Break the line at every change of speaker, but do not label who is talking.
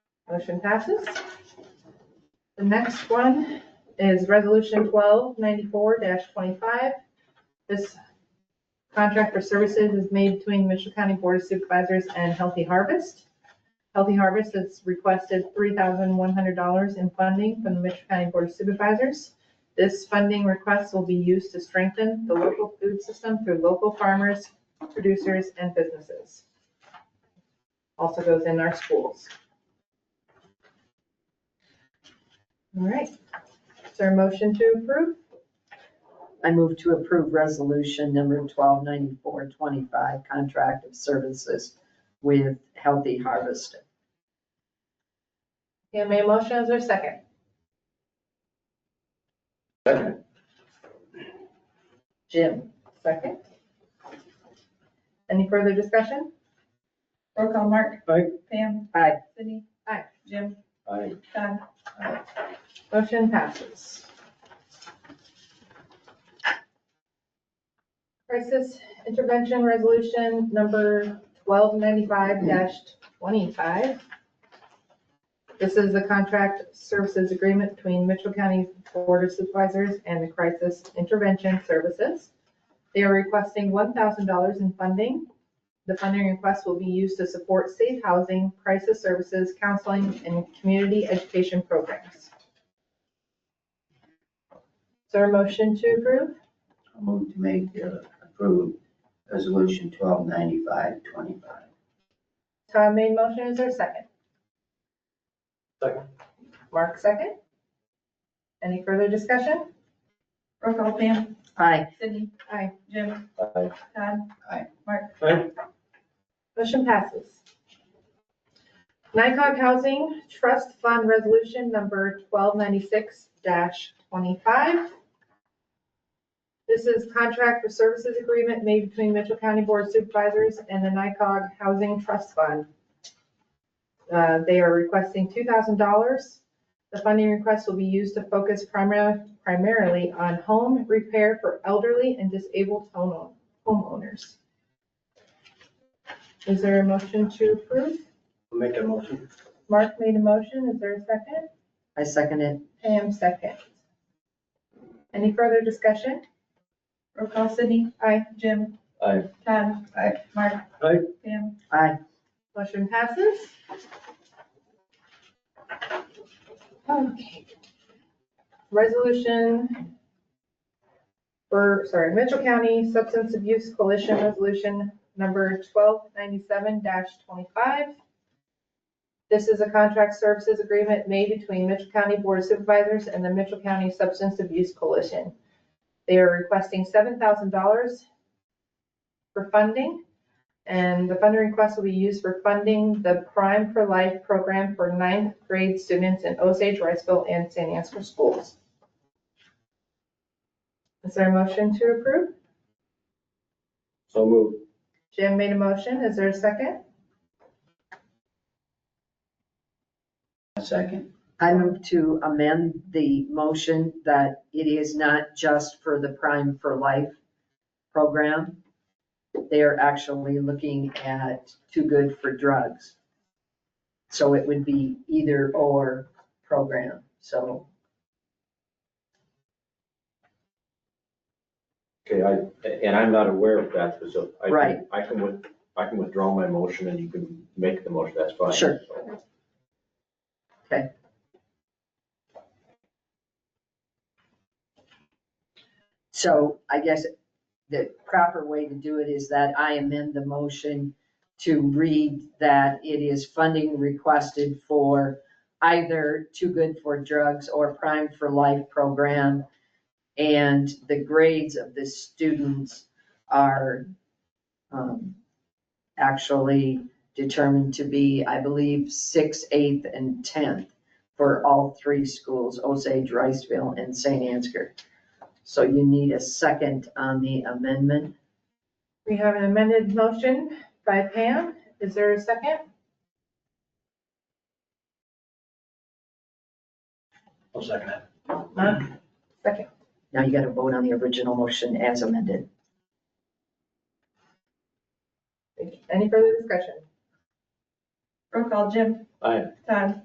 Motion passes. The next one is Resolution 1294-25. This contract for services is made between Mitchell County Board of Supervisors and Healthy Harvest. Healthy Harvest has requested $3,100 in funding from the Mitchell County Board of Supervisors. This funding request will be used to strengthen the local food system through local farmers, producers, and businesses. Also goes in our schools. All right. Is there a motion to approve?
I move to approve resolution number twelve ninety-four twenty-five, contract of services with Healthy Harvest.
Yeah, may I motion as a second?
Second.
Jim?
Second. Any further discussion?
Roll call, Mark.
Aye.
Pam.
Aye.
Sydney.
Aye.
Jim.
Aye.
Don.
Motion passes. Crisis intervention resolution number twelve ninety-five twenty-five. This is the contract services agreement between Mitchell County Board of Supervisors and the Crisis Intervention Services. They are requesting one thousand dollars in funding. The funding request will be used to support safe housing, crisis services, counseling, and community education programs. Is there a motion to approve?
I'll move to make, uh, approve resolution twelve ninety-five twenty-five.
Todd made motion, is there a second?
Second.
Mark second? Any further discussion?
Roll call, Pam.
Aye.
Sydney.
Aye.
Jim.
Aye.
Don.
Aye.
Mark.
Motion passes. NICOG Housing Trust Fund Resolution Number 1296-25. This is contract for services agreement made between Mitchell County Board of Supervisors and the NICOG Housing Trust Fund. Uh, They are requesting $2,000. The funding request will be used to focus primar- primarily on home repair for elderly and disabled homeown- homeowners. Is there a motion to approve?
Make that motion.
Mark made a motion, is there a second?
I second it.
Pam second. Any further discussion?
Roll call, Sydney.
Aye.
Jim.
Aye.
Don.
Aye.
Mark.
Aye.
Pam.
Aye.
Motion passes. Okay. Resolution for, sorry, Mitchell County Substance Abuse Coalition Resolution Number 1297-25. This is a contract services agreement made between Mitchell County Board of Supervisors and the Mitchell County Substance Abuse Coalition. They are requesting $7,000 for funding. And the funding request will be used for funding the Prime for Life program for ninth grade students in Osage, Riceville, and San Ansgar schools. Is there a motion to approve?
So moved.
Jim made a motion. Is there a second?
A second.
I move to amend the motion that it is not just for the Prime for Life program. They are actually looking at Too Good for Drugs. So it would be either or program, so.
Okay, I, and I'm not aware of that, so I can-
Right.
I can, with- I can withdraw my motion and you can make the motion, that's fine.
Sure. So I guess the proper way to do it is that I amend the motion to read that it is funding requested for either Too Good for Drugs or Prime for Life program. And the grades of the students are um, actually determined to be, I believe, sixth, eighth, and tenth for all three schools, Osage, Riceville, and St. Ansgar. So you need a second on the amendment.
We have an amended motion by Pam. Is there a second?
I'll second that.
Mark? Second.
Now you got to vote on the original motion as amended.
Any further discussion?
Roll call, Jim.
Aye.
Don.